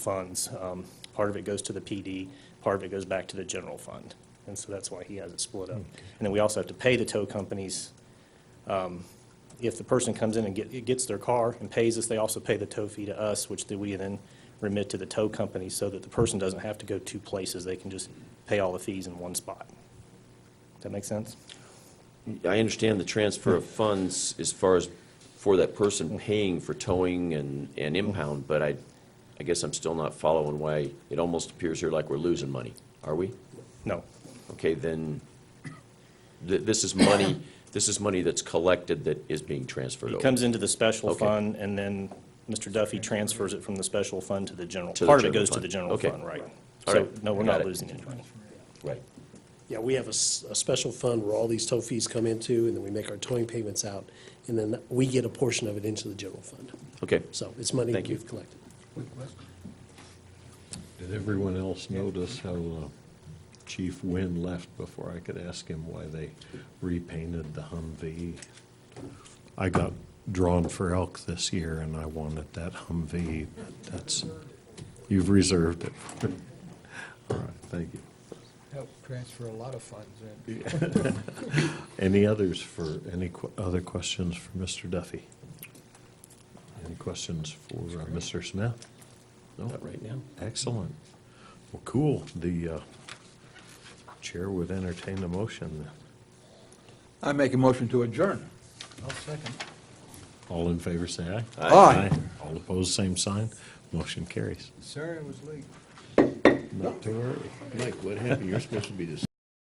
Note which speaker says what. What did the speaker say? Speaker 1: funds. Um, Part of it goes to the PD, part of it goes back to the general fund. And so that's why he has it split up. And then we also have to pay the tow companies. Um, If the person comes in and get- gets their car and pays us, they also pay the tow fee to us, which then we then remit to the tow company so that the person doesn't have to go two places. They can just pay all the fees in one spot. Does that make sense?
Speaker 2: I understand the transfer of funds as far as for that person paying for towing and, and impound, but I, I guess I'm still not following why it almost appears here like we're losing money. Are we?
Speaker 1: No.
Speaker 2: Okay, then, th- this is money, this is money that's collected that is being transferred
Speaker 1: It
Speaker 2: over.
Speaker 1: comes into the special
Speaker 2: Okay.
Speaker 1: fund, and then Mr. Duffy transfers it from the special fund to the general.
Speaker 2: To the
Speaker 1: Part of it
Speaker 2: general
Speaker 1: goes to
Speaker 2: fund.
Speaker 1: the general
Speaker 2: Okay.
Speaker 1: fund, right.
Speaker 2: All
Speaker 1: So,
Speaker 2: right.
Speaker 1: no, we're
Speaker 2: Got
Speaker 1: not
Speaker 2: it.
Speaker 1: losing any money.
Speaker 2: Right.
Speaker 3: Yeah, we have a, s- a special fund where all these tow fees come into, and then we make our towing payments out, and then we get a portion of it into the general fund.
Speaker 2: Okay,
Speaker 3: So it's money
Speaker 2: Thank you.
Speaker 3: we've collected.
Speaker 4: Did everyone else notice how uh, Chief Wynn left before I could ask him why they repainted the Humvee? I got drawn for elk this year, and I wanted that Humvee, but that's, you've reserved it. All right, thank you.
Speaker 5: Help transfer a lot of funds in.
Speaker 4: Any others for, any que- other questions for Mr. Duffy? Any questions for uh, Mr. Smith? No?
Speaker 2: not right now.
Speaker 4: Excellent. Well, cool. The uh, chair would entertain a motion. then.
Speaker 5: I make a motion to adjourn. I'll second.
Speaker 4: All in favor, say aye.
Speaker 5: Aye.
Speaker 4: All opposed, same sign. Motion carries.
Speaker 5: Sorry I was late.
Speaker 4: Not too early. Mike, what happened? You're supposed to be the